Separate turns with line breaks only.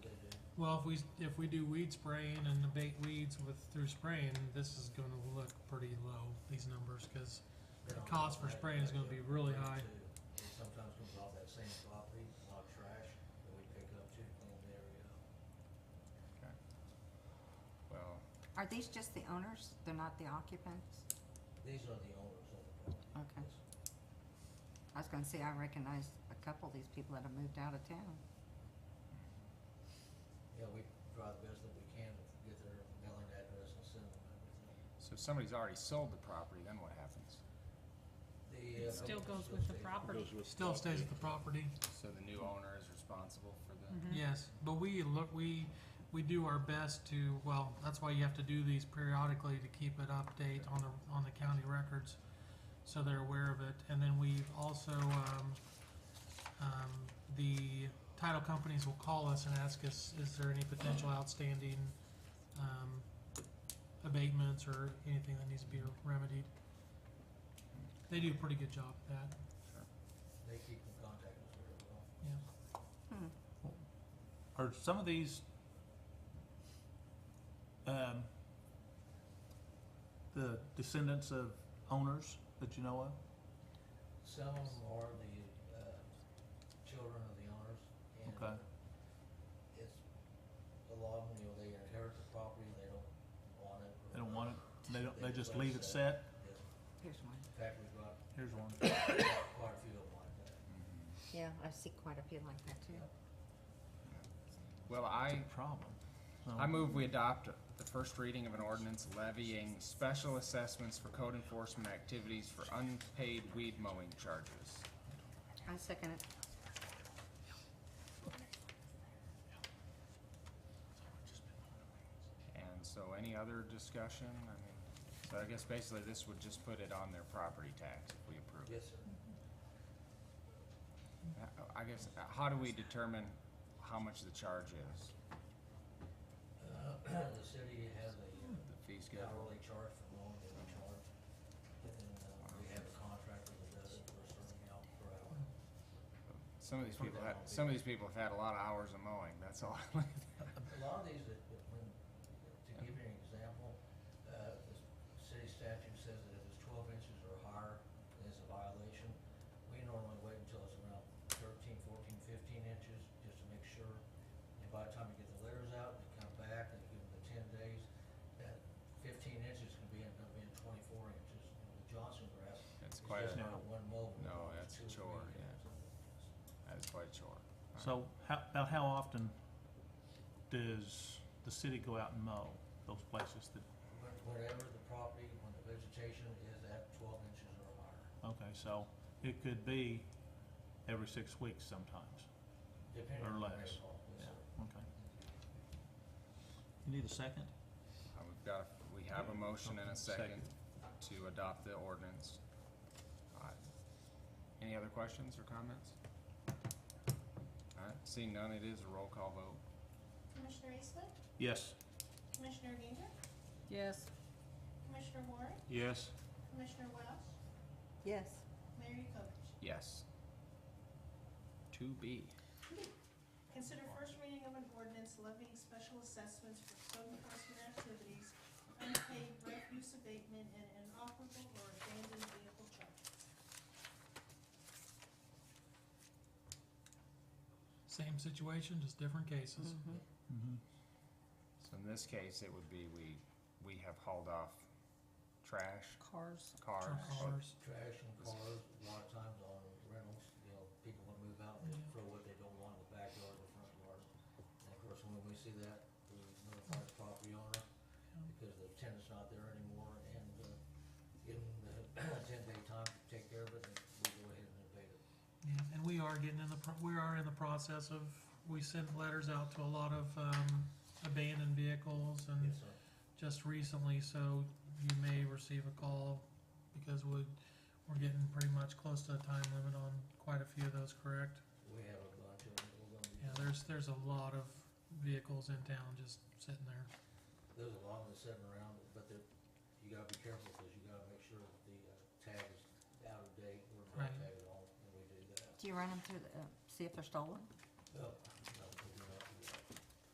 Well, if we, if we do weed spraying and abate weeds with, through spraying, this is gonna look pretty low, these numbers, cause The cost for spraying is gonna be really high.
It sometimes comes off that same property, a lot of trash that we pick up too, clean the area up.
Well,
Are these just the owners? They're not the occupants?
These are the owners of the property.
Okay. I was gonna say, I recognize a couple of these people that have moved out of town.
Yeah, we try the best that we can to get their mailing address and send them everything.
so if somebody's already sold the property, then what happens?
The, uh,
It still
owners
goes with the
stay-
property.
still stays at the property,
So the new owner is responsible for the,
Mhm.
yes, but we look, we, we do our best to, well, that's why you have to do these periodically to keep it update on the, on the county records, so they're aware of it, and then we've also, um, um, the title companies will call us and ask us, is there any potential outstanding, um, abatements or anything that needs to be remedied? They do a pretty good job at that.
They keep in contact with us very well.
Yeah.
Hmm.
Are some of these, um, the descendants of owners that you know of?
Some of them are the, uh, children of the owners and uh,
Okay.
it's, a lot of them, you know, they inherit the property, they don't want it.
They don't want it, they don't, they just leave it set?
Yes.
Here's one.
In fact, we've got
Here's one.
quite a few of them like that.
Mhm.
Yeah, I see quite a few like that too.
well, I,
Big problem. So-
I move we adopt the first reading of an ordinance levying special assessments for code enforcement activities for unpaid weed mowing charges.
I second it.
And so any other discussion? I mean, so I guess basically this would just put it on their property tax if we approve it.
Yes, sir.
Uh, I guess, uh, how do we determine how much the charge is?
Uh, the city has a uh,
The fee schedule?
hourly charge for mowing that we charge. And, uh, we have a contractor that does it for a certain amount per hour.
Some of these people had, some of these people have had a lot of hours of mowing, that's all.
A lot of these, that, that when, to give you an example, uh, the city statute says that if it's twelve inches or higher, it's a violation. We normally wait until it's around 13, 14, 15 inches, just to make sure. And by the time you get the letters out, they come back, they give them the ten days, that fifteen inches can be, end up being twenty-four inches. You know, The Johnson grass is
It's quite,
just
a-
not one mow.
No,
it's
that's a
two or three
chore, yeah.
guys.
that's quite a chore.
So how, about how often does the city go out and mow those places that,
When- Whenever the property, when the vegetation is at twelve inches or higher.
okay, so it could be every six weeks sometimes.
Depending
Or
on the
less.
rainfall, yes, sir.
Okay. You need a second?
Uh, We've got, we have a motion and a second to adopt the ordinance. Alright. Any other questions or comments? Alright, seeing none, it is a roll call vote.
Commissioner Eastwood,
Yes.
Commissioner Gager,
Yes.
Commissioner Warren,
Yes.
Commissioner Welch,
Yes.
Mayor Yukovich.
Yes. To be.
Consider first reading of an ordinance levying special assessments for code enforcement activities, unpaid refuse abatement, and inoperable or abandoned vehicle charges.
Same situation, just different cases.
Mhm.
Mm-hmm.
So in this case, it would be we, we have hauled off trash,
Cars.
cars.
Cars.
Trash and cars, a lot of times on rentals, you know, people want to move out, they
Yeah.
throw what they don't want in the backyard or front yard. And of course, when we see that, we notify the property owner, because the tenant's not there anymore, and, uh, give them the ten-day time to take care of it, and we go ahead and abate it.
Yeah, and we are getting in the, pro- we are in the process of, we sent letters out to a lot of, um, abandoned vehicles and
Yes, sir.
just recently, so you may receive a call because we, we're getting pretty much close to the time limit on quite a few of those, correct?
We have a bunch of, them. we're gonna be.
Yeah, there's, there's a lot of vehicles in town just sitting there.
There's a lot of them sitting around, but they're, you gotta be careful, cause you gotta make sure that the uh, tag is out of date, we're not
Right.
tagged at all, and we do that.
Do you run them through the, uh, see if they're stolen?
Oh,